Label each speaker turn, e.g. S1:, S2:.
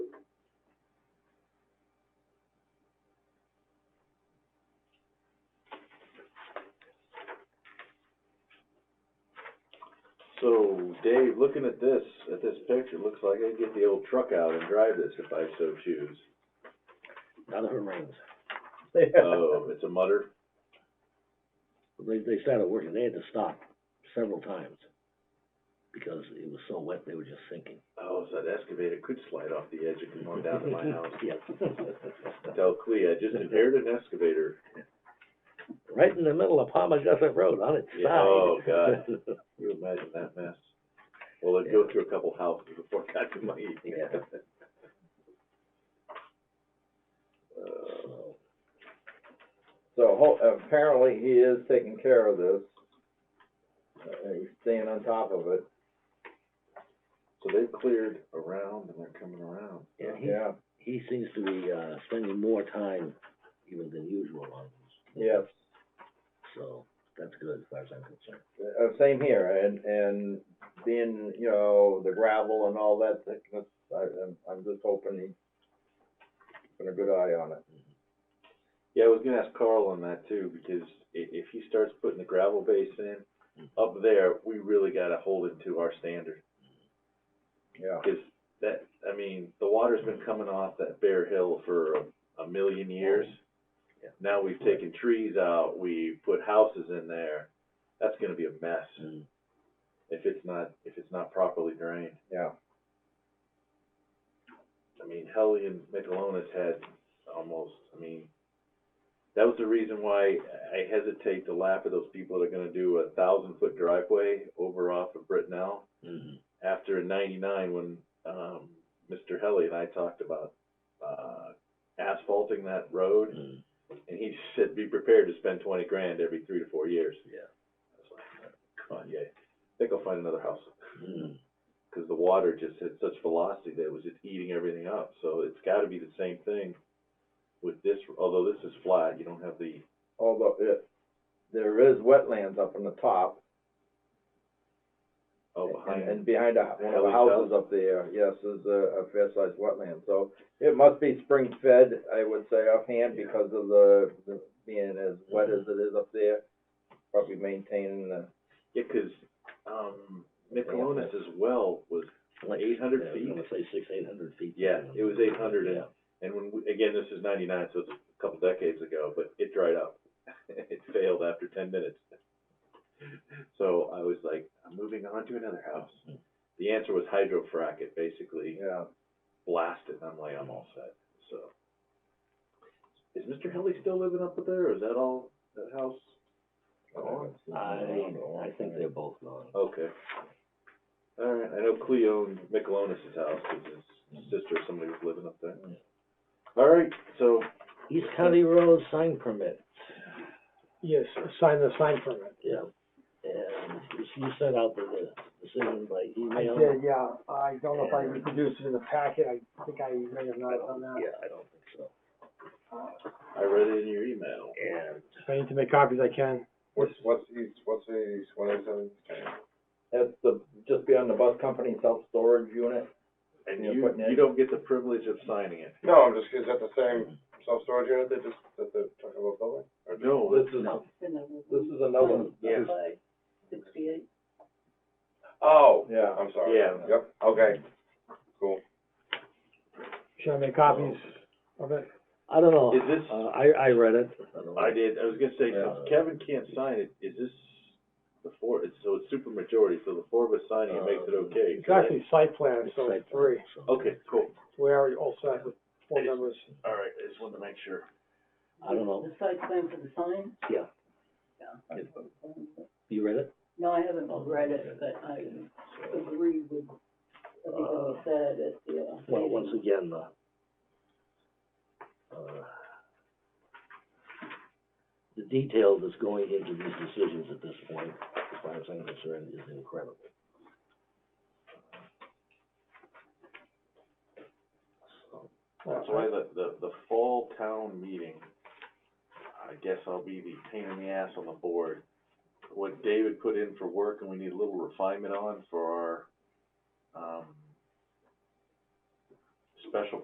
S1: So, Dave, looking at this, at this picture, looks like I get the old truck out and drive this if I so choose.
S2: None of it rains.
S1: Oh, it's a mutter?
S2: They, they started working, they had to stop several times because it was so wet, they were just sinking.
S1: Oh, so that excavator could slide off the edge and come on down to my house.
S2: Yes.
S1: Tell Clea, I just inherited an excavator.
S2: Right in the middle of Palma Gussit Road, on its
S1: Yeah,
S2: side.
S1: oh, God. Can you imagine that mess? Well, it'd go through a couple houses before it got to my.
S2: Yeah.
S1: Uh,
S2: So,
S3: So ho- apparently he is taking care of this. Uh, he's staying on top of it.
S1: So they've cleared around and they're coming around.
S2: Yeah, he, he seems to be, uh, spending more time even than usual on this,
S3: Yes.
S2: so that's good as far as I'm concerned.
S3: Uh, same here, and, and being, you know, the gravel and all that, that- that's, I, I'm, I'm just hoping he's put a good eye on it.
S1: Yeah, I was gonna ask Carl on that too, because i- if he starts putting the gravel base in, up there, we really gotta hold it to our standard.
S3: Yeah,
S1: Cause that, I mean, the water's been coming off that bare hill for a, a million years.
S2: Yeah.
S1: Now we've taken trees out, we put houses in there, that's gonna be a mess
S2: Mm.
S1: if it's not, if it's not properly drained.
S3: yeah.
S1: I mean, Helly and Michelonis had almost, I mean, that was the reason why I hesitate to laugh at those people that are gonna do a thousand foot driveway over off of Brittenell
S2: Mhm.
S1: after in ninety-nine when, um, Mr. Helly and I talked about, uh, asphalting that road,
S2: Mm.
S1: and he said, be prepared to spend twenty grand every three to four years.
S2: Yeah.
S1: I was like, come on, yeah, I think I'll find another house
S2: Mm.
S1: because the water just had such velocity that it was just eating everything up. So it's got to be the same thing with this, although this is flat, you don't have the,
S3: Although it, there is wetlands up on the top.
S1: oh,
S3: And,
S1: behind.
S3: and behind a, one of the
S1: Alley
S3: houses
S1: South?
S3: up there, yes, is a, a fair-sized wetland, so it must be spring-fed, I would say offhand, because of the, the, being as wet as it is up there, probably maintaining the,
S1: Yeah, because, um, Nicoleonis as well was,
S2: Like,
S1: 800
S2: yeah, I was
S1: feet?
S2: gonna say six, eight hundred feet.
S1: yeah, it was eight hundred and,
S2: Yeah.
S1: and when, we- again, this is ninety-nine, so it's a couple decades ago, but it dried up. It failed after ten minutes. So I was like, I'm moving on to another house. The answer was hydrofrack it, basically.
S3: yeah.
S1: blasted, and I'm like, I'm all set, so. Is Mr. Helly still living up there, or is that all, that house? gone?
S2: I, I think they're both gone.
S1: Okay. All right, I know Cleo owned Michelonis's house, 'cause his sister or somebody was living up there. All right, so,
S2: East County Road sign permit.
S4: Yes, sign the sign permit.
S2: Yeah, and you- you sent out the- the decision by
S4: I
S2: email?
S4: did, yeah, I don't know if I reproduced it in the packet, I think I may have
S2: I
S4: not done
S2: don't,
S4: that.
S2: yeah, I don't think so.
S1: I read it in your email.
S2: And
S4: If I need to make copies, I can.
S5: What's, what's east, what's east, what is it?
S3: That's the, just beyond the bus company self-storage unit,
S1: And
S3: Yeah,
S1: you,
S3: putting it-
S1: you don't get the privilege of signing it.
S5: No, I'm just, is that the same self-storage unit that just, that they're talking about building? Or just-
S1: No,
S3: this
S1: it's,
S3: is,
S2: No.
S3: this is another one.
S1: yeah,
S5: Oh,
S3: Yeah.
S5: I'm sorry.
S1: Yeah.
S5: Yep, okay, cool.
S4: Should I make copies of it?
S2: I don't know.
S1: Is this-
S2: Uh, I, I read it. don't know.
S1: I did, I was gonna say, since
S2: Yeah.
S1: Kevin can't sign it, is this the four, it's, so it's super majority, so the four of us signing it makes it
S2: Um,
S1: okay.
S4: It's
S1: correct?
S4: actually site plan,
S2: It's
S4: so
S2: site
S4: it's three.
S2: plan, so-
S1: Okay, cool.
S4: We already all set with four members.
S1: All right, I just wanted to make sure.
S2: I don't know,
S6: The site plan for the sign?
S2: yeah. Yeah. You read it?
S6: No, I haven't read it, but I agree with everything you said at the, uh,
S2: Well,
S6: meeting.
S2: once again, the, uh, the detail that's going into these decisions at this point, as far as I'm concerned, is incredible. So,
S4: Uh,
S1: That's why the, the, the fall town meeting, I guess I'll be the pain in the ass on the board. What David put in for work and we need a little refinement on for our, um, special